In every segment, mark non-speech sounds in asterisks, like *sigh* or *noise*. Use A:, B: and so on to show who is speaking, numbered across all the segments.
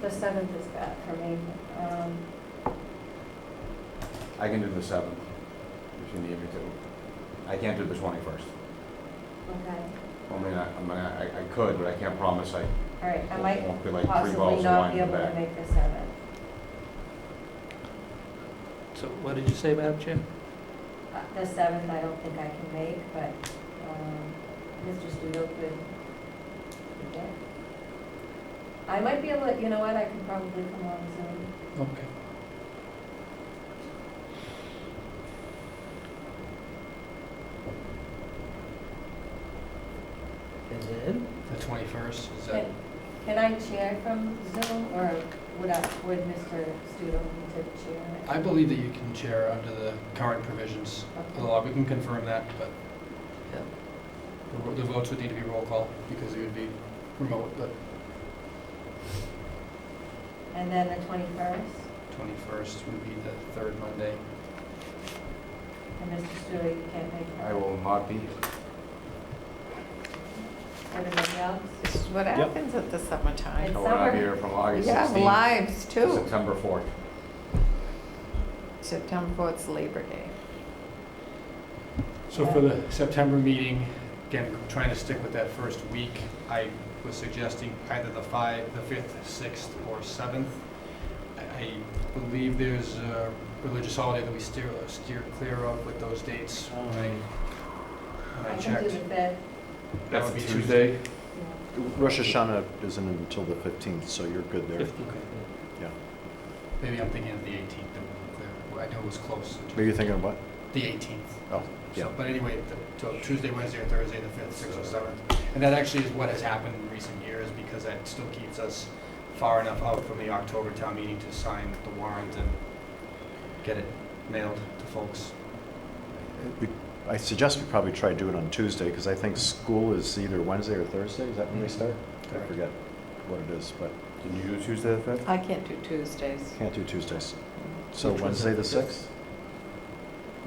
A: The seventh is bad for me. Um,
B: I can do the seventh, if you need me to. I can't do the twenty-first.
A: okay,
B: I mean, I, I mean, I, I could, but I can't promise I
A: all right, I might
B: won't be like three
A: possibly
B: bottles of
A: not
B: wine
A: be
B: in
A: able
B: the
A: to
B: back.
A: make the seventh.
C: So what did you say, Madam Chair?
A: Uh, The seventh, I don't think I can make, but, um, Mr. Studo could, could get. I might be able to, you know what, I can probably come on Zoom.
C: Okay. And then? The twenty-first, is that,
A: Can- Can I chair from Zoom, or would I, would Mr. Studo need to chair it?
C: I believe that you can chair under the current provisions of the
A: Okay.
C: law. We can confirm that, but the ro- the votes would need to be roll call because it would be remote, but
A: And then the twenty-first,
C: twenty-first would be the third Monday.
A: and Mr. Studo, you can't make
B: I
A: it.
B: will not be here.
A: Everybody else?
D: This is what happens at the summertime.
B: I will not
A: summer.
B: be here from
D: We
B: August
D: have
B: sixteenth
D: lives
B: to
D: too.
B: September fourth.
D: September fourth's Labor Day.
C: So for the September meeting, again, trying to stick with that first week, I was suggesting either the five, the fifth, sixth, or seventh. I- I believe there's a religious holiday that we steer, steer clear of with those dates. when I- when
A: I
C: I
A: can do
C: checked.
A: the fifth,
C: That would
E: That's
C: be
E: a Tuesday.
A: yeah.
E: Rosh Hashanah isn't until the 15th, so you're good there.
C: Okay.
E: Yeah.
C: Maybe I'm thinking of the eighteenth, that would be clear. Well, I know it was close.
E: Maybe you're thinking of what?
C: The eighteenth.
E: Oh, yeah.
C: So, but anyway, the- so Tuesday, Wednesday, or Thursday, the fifth, sixth, or seventh. And that actually is what has happened in recent years, because that still keeps us far enough out from the October town meeting to sign the warrant and get it mailed to folks.
E: We- I suggest we probably try to do it on Tuesday, because I think school is either Wednesday or Thursday, is that when they
C: Mm-hmm.
E: start? I forget what it is, but
B: Can you do Tuesday the fifth?
D: I can't do Tuesdays.
E: can't do Tuesdays. So
C: Which was
E: Wednesday
C: it?
E: the 6th?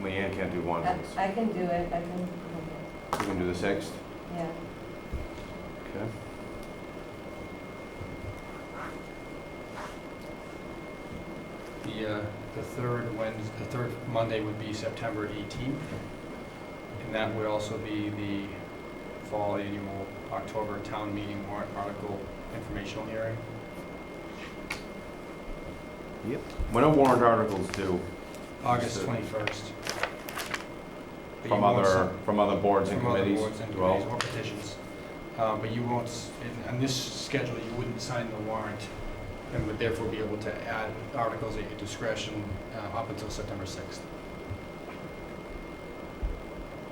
B: Leanne can't do one,
A: I
B: you
A: I can do it, I can, okay,
B: can do the sixth.
A: yeah.
B: Okay.
C: The, uh, the third Wednesday, the third Monday would be September eighteenth. And that would also be the fall annual October town meeting warrant article informational hearing.
B: When are warrant articles due
C: August
B: So-
C: 21st. But
B: from
C: you won't
B: other, from other boards
C: see-
B: and
C: from other
B: committees?
C: boards and
B: Well,
C: committees or petitions. Uh, But you won't, s- in- on this schedule, you wouldn't sign the warrant and would therefore be able to add articles at your discretion uh, up until September 6th.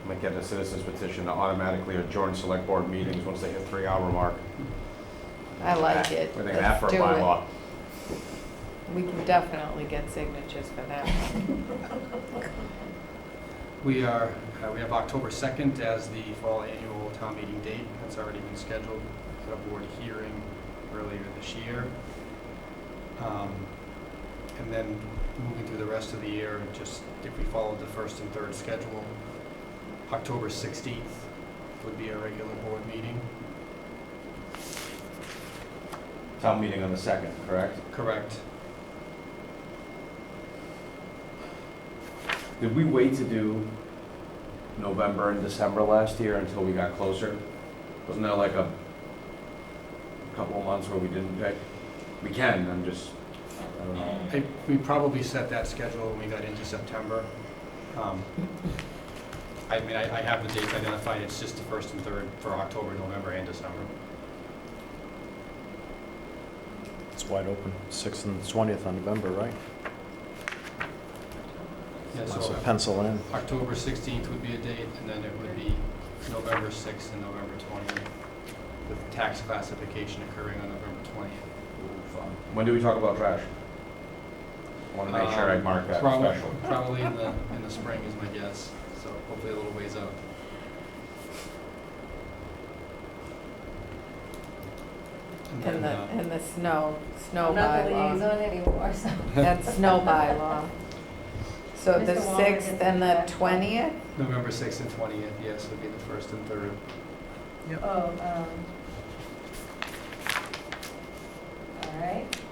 B: Might get a citizen's petition to automatically adjourn select board meetings once they hit three-hour mark.
D: I like it.
B: I think that
D: Let's
B: for a
D: do it.
B: bylaw.
D: We can definitely get signatures for that one.
C: We are, uh, we have October 2nd as the fall annual town meeting date. That's already been scheduled at a board hearing earlier this year. Um, And then moving through the rest of the year, just if we followed the first and third schedule, October 16th would be our regular board meeting.
B: Town meeting on the second, correct?
C: Correct.
B: Did we wait to do November and December last year until we got closer? Wasn't there like a couple of months where we didn't pick? We can, I'm just, I don't know.
C: I- We probably set that schedule when we got into September. Um, I mean, I I have the dates identified, it's just the first and third for October, November, and December.
E: It's wide open, 6th and 20th on November, right?
C: Yeah,
E: So
C: so
E: pencil in.
C: October 16th would be a date, and then it would be November 6th and November 20th, with tax classification occurring on November 20th.
B: When do we talk about trash? I want to make sure I
C: Um,
B: mark that
C: probably-
B: special.
C: Probably in the, in the spring is my guess, so hopefully a little ways out. And
D: And
C: then,
D: the,
A: *laughs*
C: uh,
D: and the snow, snow
A: I'm not the
D: bylaw.
A: liaison anymore, so.
D: That's snow bylaw. So the
A: Mr. Wallner
D: sixth
A: gets
D: and
A: it
D: the
A: back.
D: twentieth,
C: November 6th and 20th, yes, would be the first and third.
A: Oh, um. All right.